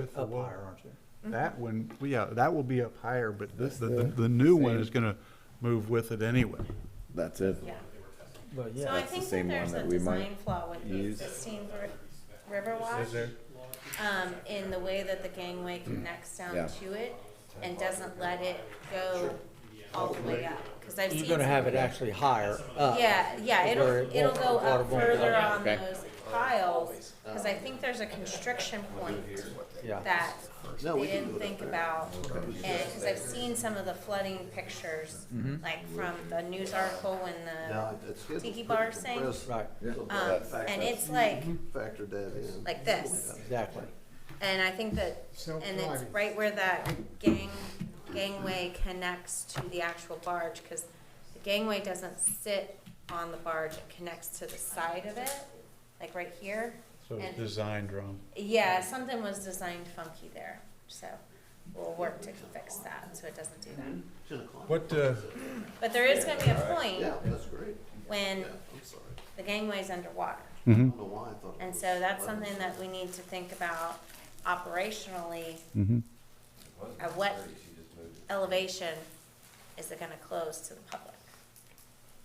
With the Up wall. higher, aren't you? That one, well, yeah, that will be up higher, but this, the, the Yeah. the new one is gonna move with it anyway. That's it. Yeah, But so yeah, I That's the think that same one there's that a we might design flaw with the use. existing ver- Riverwatch, um, in the way that the gangway connects Yeah. down to it and doesn't let it go all the way up, cause I've seen. you're gonna have it actually higher up. Yeah, yeah, to it'll, where it it'll won't- go water up won't further go. on Okay. those piles, cause I think there's a constriction point Yeah. that they didn't think about. And, cause I've seen some of the flooding pictures, Mm-hmm. like from the news article and the tiki bar thing. Right, Um, and it's like, Factored that in. like this, exactly. and I think that, and it's right where that gang, gangway connects to the actual barge, cause the gangway doesn't sit on the barge, it connects to the side of it, like right here. So it's And- designed wrong. Yeah, something was designed funky there, so we'll work to fix that, so it doesn't do Mm-hmm. that. What, uh, But there is gonna be a point Yeah, that's great. when Yeah, I'm sorry. the gangway's underwater. I don't know why I thought. it And was- so that's something that we need to think about operationally. At what elevation is it gonna close to the public?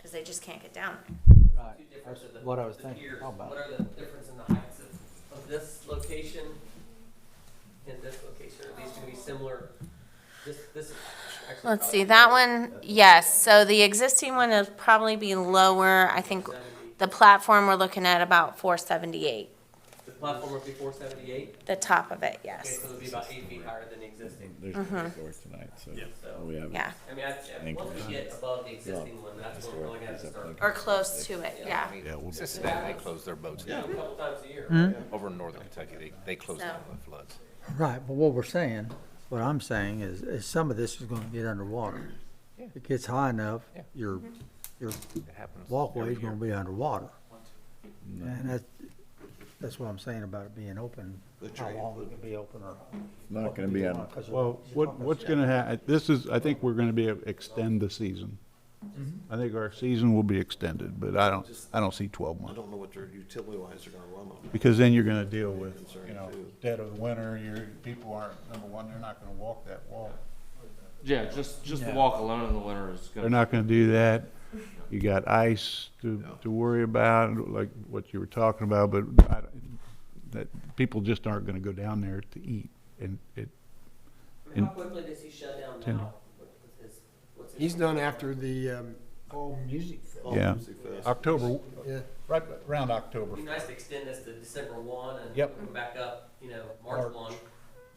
Cause they just can't get down there. Right. Two difference That's of the- what I was the thinking piers. about. What are the difference in the heights of, of this location and this location? Are these gonna be similar? This, this. is actually Let's probably see, that better. one, yes, so the existing one will probably be lower, I think the platform we're looking at about four seventy-eight, The platform would be four seventy-eight, the top of it, okay, yes, so it'll be about eight feet higher than the existing, There's no door tonight, so so. we have. Uh-huh. yeah. I mean, I, Thank once you. we get above the existing one, that's when we're really gonna have to start. Or close to it, yeah, yeah, we'll- Cincinnati, they close their boats A now. couple times a year. Over in northern Kentucky, they, they close So- down the floods. Right, but what we're saying, what I'm saying is, is some of this is gonna get underwater. It gets high enough, Yeah. your, your It happens. walkway's every year. gonna be underwater. And that's, that's what I'm saying about it being open, how long it can be open or. Not gonna be on, on. 'cause well, you're what, talking- what's gonna hap, this is, I think we're gonna be, able to extend the season. Mm-hmm. I think our season will be extended, but I don't, I don't see twelve I months. don't know what their utility lines are gonna run on. Because then you're gonna deal with, you know, Concern, too. dead of winter, your, people aren't, number one, they're not gonna walk that wall. Yeah, just just the walk alone in the winter is They're gonna. not gonna do that. You got ice to, to worry about, like what you were talking about, but I, that, people just aren't gonna go down there to eat. And it, I mean, How quickly does he shut down Ten. now with with his, what's his? He's done after the um, fall music festival. yeah, Music fest. October, Yeah. right around October. It'd be nice to extend this to December one and Yep. come back up, you know, March March. one.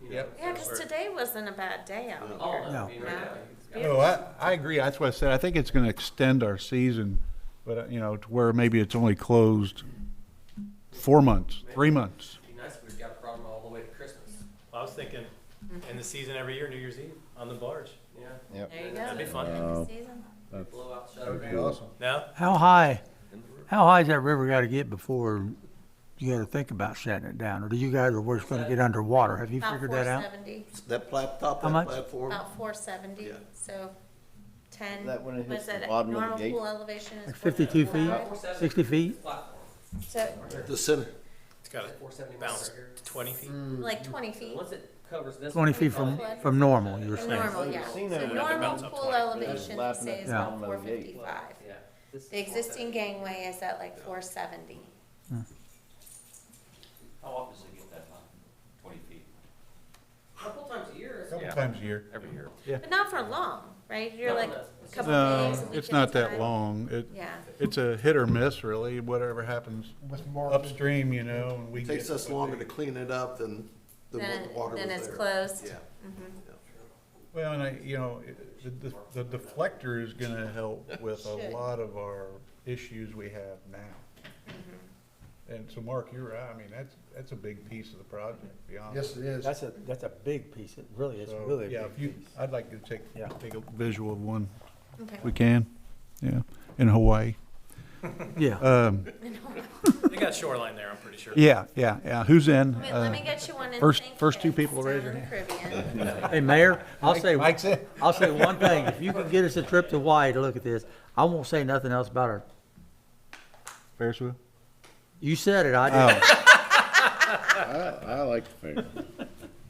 you know, Yep. yeah, cause today wasn't a bad day out Oh, All here. of them, I mean, right No. now, it's got- No, Oh, I, I agree. That's what I said. I think it's gonna extend our season, but, uh, you know, to where maybe it's only closed four months, three months. It'd be nice if we've got a problem all the way to Christmas, I was thinking, end the season every year, New Year's Eve, on the barge. you know? There you That'd be go. fun. End of season. Blow out, shut it down. awesome. No? How high, how high's that river gotta get before you gotta think about shutting it down? Or do you guys, or we're just gonna get underwater? Have you About figured four that out? seventy, That plat, top How of much? that platform, about four seventy, Yeah. so ten, That when it was hits the that a bottom of the normal gate? pool elevation is Like 52 feet? 475? 60 feet? Platform, So, the center, It's got four seventy a miles bounce right here. twenty feet. Hmm. like twenty feet, Once it covers this. Twenty one, feet from, probably- from normal, you were the saying? normal, yeah, seen so that when it normal mounts up pool 20. elevation, Yeah. we say is Yeah. about four fifty-five. Yeah. This is The existing gangway is at like four seventy. How often does it get that high? Twenty feet? A Couple times a year. Couple times a year. Every year. But not for long, right? You're No, like no. a couple days, a No, week it's at not a that time. long. It, Yeah, it's a hit or miss, really, whatever happens With Mark. upstream, you know, and we. takes get- us longer to clean it up than, than then, what the water it- was then there. it's closed. Mm-hmm. Yeah. Well, and I, you know, it- the, the the deflector is gonna help with a Should. lot of our issues we have now. Mm-hmm. And so, Mark, you're right. I mean, that's, that's a big piece of the project, to be honest. Yes, it is. That's a, that's a big piece, it really is, So, really Yeah, a if big you, piece. I'd like to take, Yeah. take a visual of one, Okay. if we can, yeah, in Hawaii. Yeah, Um, They got shoreline there, I'm pretty sure. yeah, yeah, yeah, who's in? Wait, let Uh, me get you one in. first- Saint first two Kitts people to raise down their in the Caribbean. hey, Mayor, I'll say, Mike's in. I'll say one thing, if you can get us a trip to Hawaii to look at this, I won't say nothing else about it. Ferris wheel? Oh. You said it, I did I, I like the fair.